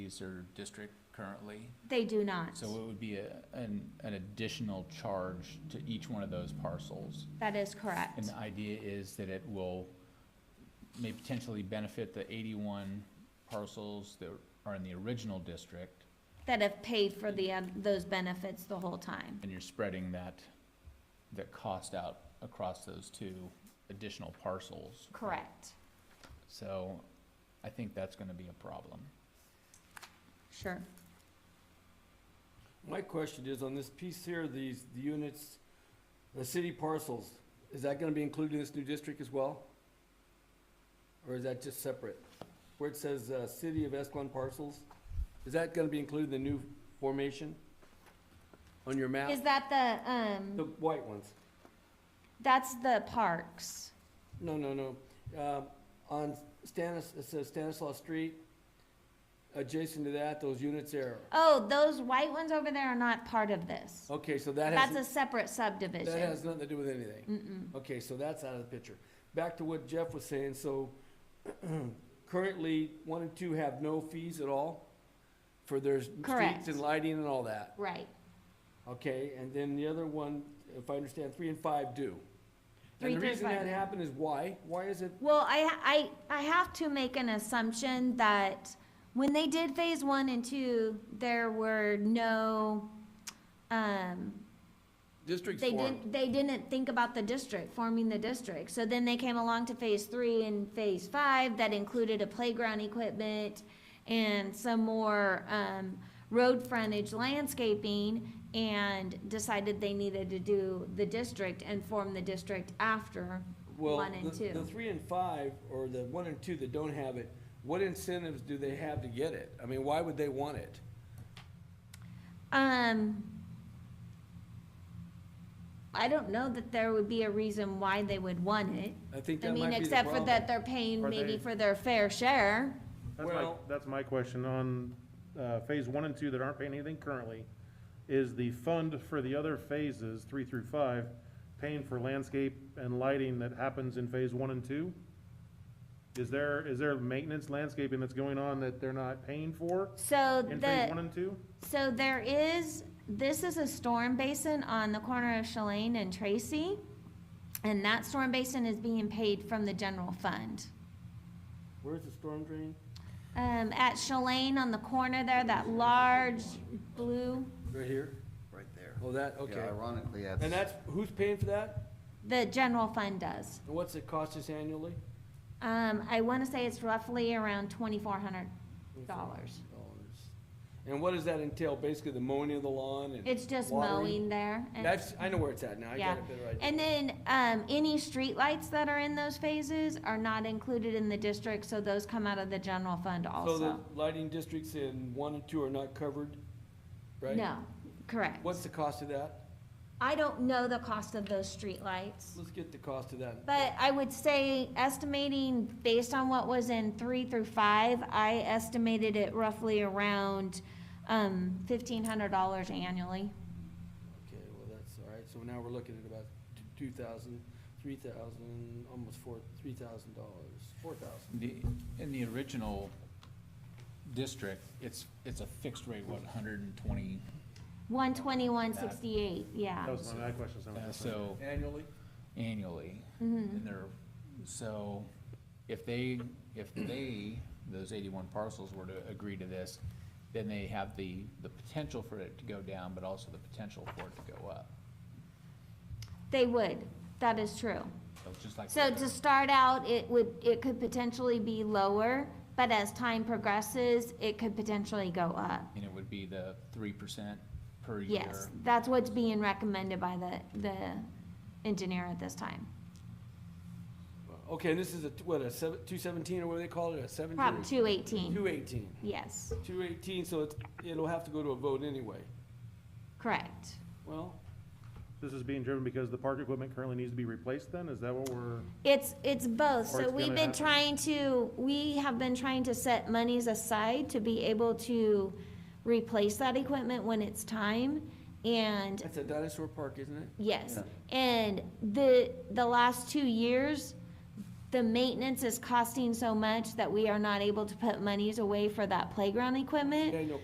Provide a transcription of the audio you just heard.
base or district currently. They do not. So it would be a, an, an additional charge to each one of those parcels. That is correct. And the idea is that it will, may potentially benefit the eighty-one parcels that are in the original district, That have paid for the, oth- those benefits the whole time. and you're spreading that, that cost out across those two additional parcels. Correct. So I think that's gonna be a problem. Sure. My question is, on this piece here, these, the units, the city parcels, is that gonna be included in this new district as well? Or is that just separate? Where it says, uh, City of Escalon parcels, is that gonna be included in the new formation? On your map? Is that the, um, The white ones? that's the parks? No, no, no. Um, on Stanis, it says Stanislaus Street, adjacent to that, those units there. Oh, those white ones over there are not part of this. Okay, so Oh, that That's has, a separate that subdivision. has nothing to do with anything. Mm-mm. Okay, so that's out of the picture. Back to what Jeff was saying, so currently, one and two have no fees at all for their Correct. streets and lighting and all that, Right. okay? And then the other one, if I understand, three and five do. Three, And the three, reason that five. happened is why? Why is it, Well, I, I, I have to make an assumption that when they did phase one and two, there were no, um, districts They didn't, formed? they didn't think about the district, forming the district. So then they came along to phase three and phase five that included a playground equipment and some more, um, road frontage landscaping and decided they needed to do the district and form the district after Well, one and the, the two. three and five, or the one and two that don't have it, what incentives do they have to get it? I mean, why would they want it? Um, I don't know that there would be a reason why they would want it. I think I that might mean, be the except for problem. that they're paying Are maybe they- for their fair share. That's my, Well- that's my question on, uh, phase one and two that aren't paying anything currently. Is the fund for the other phases, three through five, paying for landscape and lighting that happens in phase one and two? Is there, is there maintenance landscaping that's going on that they're not paying for So in phase one the, and two? so there is, this is a storm basin on the corner of Shalane and Tracy. And that storm basin is being paid from the general fund. Where's the storm drain? Um, at Shalane on the corner there, that large blue, Right here? right there. Oh, that, Yeah, okay. Ironically, And that's, that's, who's paying for that? the general fund does. And what's it cost us annually? Um, I wanna say it's roughly around twenty-four hundred dollars. Dollars. And what does that entail? Basically, the mowing of the lawn and? It's just watering? mowing there. and- That's, I know where it's at now. I Yeah. got a better idea. And then, um, any streetlights that are in those phases are not included in the district, so those come out of the general fund So the also. lighting districts in one and two are not covered, right? No, correct. What's the cost of that? I don't know the cost of those streetlights, Let's get the cost of that. but I would say estimating based on what was in three through five, I estimated it roughly around, um, fifteen hundred dollars annually. Okay, well, that's all right. So now we're looking at about t- two thousand, three thousand, almost four, three thousand dollars, four thousand. The, in the original district, it's, it's a fixed rate, what, hundred and twenty? One twenty-one sixty-eight, yeah. That was my question. so- So Annually? annually. Mm-hmm. And they're, so if they, if they, those eighty-one parcels were to agree to this, then they have the, the potential for it to go down, but also the potential for it to go up. They would, that is true. So it's just like. So to start out, it would, it could potentially be lower, but as time progresses, it could potentially go up. And it would be the three percent per year. Yes, that's what's being recommended by the, the engineer at this time. Okay, and this is a, t- what, a seven, two seventeen, or what do they call it, a seventeen? Prop two eighteen, Two eighteen. yes, Two eighteen, so it's, it'll have to go to a vote anyway. correct. Well, This is being driven because the park equipment currently needs to be replaced then? Is that what we're? It's, it's both, so Or it's we've gonna been happen. trying to, we have been trying to set monies aside to be able to replace that equipment when it's time, and that's a dinosaur park, isn't it? Yes, and the, the last two years, the maintenance is costing so much that we are not able to put monies away for that playground equipment. Daniel,